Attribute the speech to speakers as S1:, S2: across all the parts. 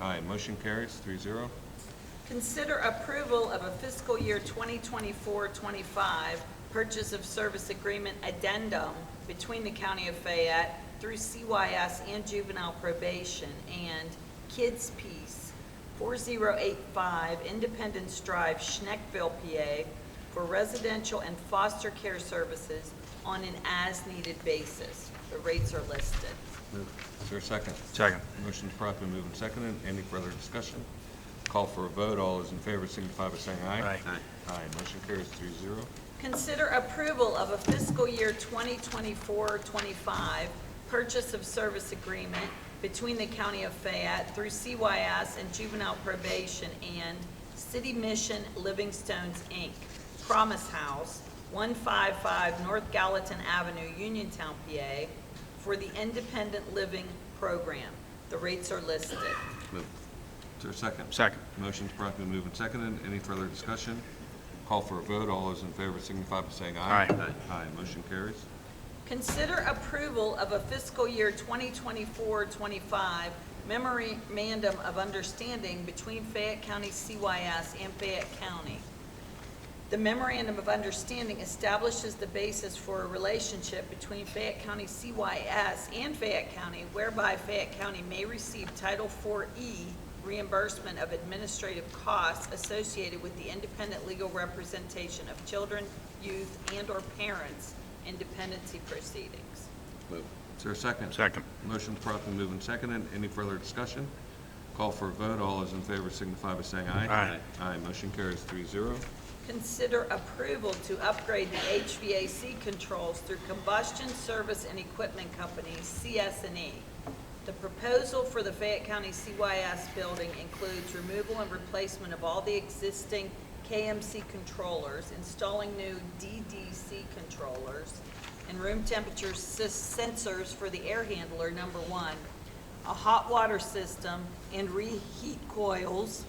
S1: Aye, motion carries, three zero.
S2: Consider approval of a fiscal year 2024-25 purchase of service agreement addendum between the County of Fayette through CYS and juvenile probation and Kids Peace, 4085 Independence Drive, Schneckville, PA, for residential and foster care services on an as-needed basis. The rates are listed.
S1: Is there a second?
S3: Second.
S1: Motion's promptly moved and seconded. Any further discussion? Call for a vote. All those in favor signify by saying aye.
S3: Aye. Aye.
S1: Aye, motion carries three zero.
S2: Consider approval of a fiscal year 2024-25 purchase of service agreement between the County of Fayette through CYS and Juvenile Probation and City Mission Livingstones, Inc., Promise House, 155 North Gallatin Avenue, Uniontown, PA, for the Independent Living Program. The rates are listed.
S1: Move. Is there a second?
S3: Second.
S1: Motion's promptly moved and seconded. Any further discussion? Call for a vote. All those in favor signify by saying aye.
S3: Aye.
S1: Aye, motion carries.
S2: Consider approval of a fiscal year 2024-25 memorandum of understanding between Fayette County CYS and Fayette County. The memorandum of understanding establishes the basis for a relationship between Fayette County CYS and Fayette County whereby Fayette County may receive Title IV-E reimbursement of administrative costs associated with the independent legal representation of children, youth, and/or parents in dependency proceedings.
S1: Move. Is there a second?
S3: Second.
S1: Motion's promptly moved and seconded. Any further discussion? Call for a vote. All those in favor signify by saying aye.
S3: Aye.
S1: Aye, motion carries three zero.
S2: Consider approval to upgrade the HVAC controls through Combustion Service and Equipment Company, CS&E. E. The proposal for the Fayette County CYS building includes removal and replacement of all the existing KMC controllers, installing new DDC controllers, and room temperature sis- sensors for the air handler, number one, a hot water system, and reheat coils,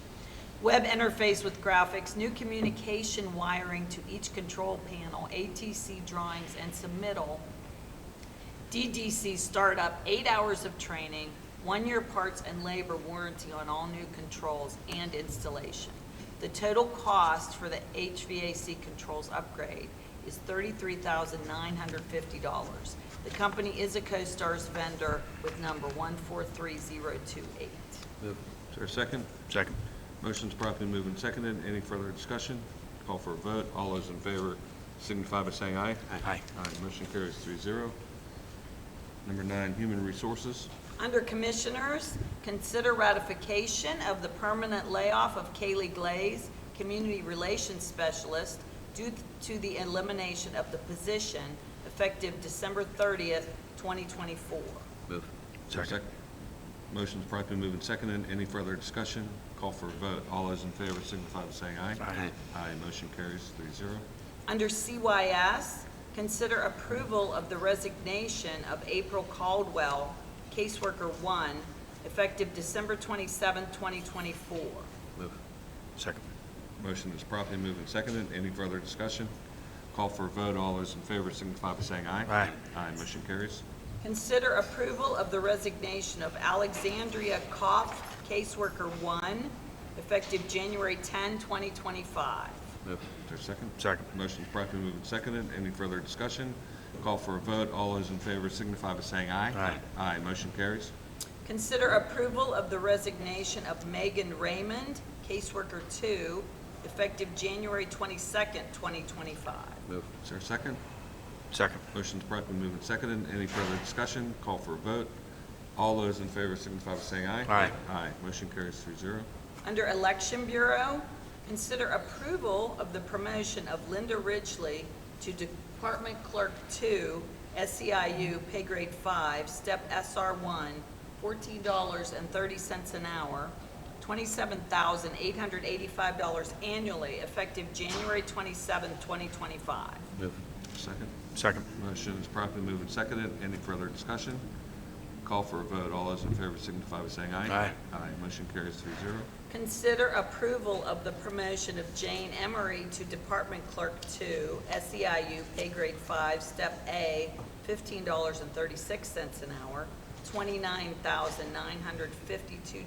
S2: web interface with graphics, new communication wiring to each control panel, ATC drawings and submittal, DDC startup, eight hours of training, one-year parts and labor warranty on all new controls and installation. The total cost for the HVAC controls upgrade is $33,950. The company is a CoStarz vendor with number 143028.
S1: Move. Is there a second?
S3: Second.
S1: Motion's promptly moved and seconded. Any further discussion? Call for a vote. All those in favor signify by saying aye.
S3: Aye.
S1: Aye, motion carries three zero. Number nine, Human Resources.
S2: Under Commissioners, consider ratification of the permanent layoff of Kaylee Glaze, Community Relations Specialist, due to the elimination of the position effective December 30th, 2024.
S1: Move.
S3: Second.
S1: Motion's promptly moved and seconded. Any further discussion? Call for a vote. All those in favor signify by saying aye.
S3: Aye.
S1: Aye, motion carries three zero.
S2: Under CYS, consider approval of the resignation of April Caldwell, Caseworker 1, effective December 27th, 2024.
S1: Move.
S3: Second.
S1: Motion is promptly moved and seconded. Any further discussion? Call for a vote. All those in favor signify by saying aye.
S3: Aye.
S1: Aye, motion carries.
S2: Consider approval of the resignation of Alexandria Koff, caseworker one, effective January 10, 2025.
S1: Move. Is there a second?
S3: Second.
S1: Motion's promptly moved and seconded. Any further discussion? Call for a vote. All those in favor signify by saying aye.
S3: Aye.
S1: Aye, motion carries.
S2: Consider approval of the resignation of Megan Raymond, caseworker two, effective January 22, 2025.
S1: Move. Is there a second?
S3: Second.
S1: Motion's promptly moved and seconded. Any further discussion? Call for a vote. All those in favor signify by saying aye.
S3: Aye.
S1: Aye, motion carries three zero.
S2: Under Election Bureau, consider approval of the promotion of Linda Ridgely to Department Clerk Two, SEIU, pay grade five, step SR one, fourteen dollars and thirty cents an hour, twenty-seven thousand eight hundred eighty-five dollars annually, effective January twenty-seventh, twenty twenty-five.
S1: Move. Second.
S3: Second.
S1: Motion is promptly moved and seconded. Any further discussion? Call for a vote. All those in favor signify by saying aye.
S3: Aye.
S1: Aye. Motion carries three zero.
S2: Consider approval of the promotion of Jane Emery to Department Clerk Two, SEIU, pay grade five, step A, fifteen dollars and thirty-six cents an hour, twenty-nine thousand nine hundred fifty-two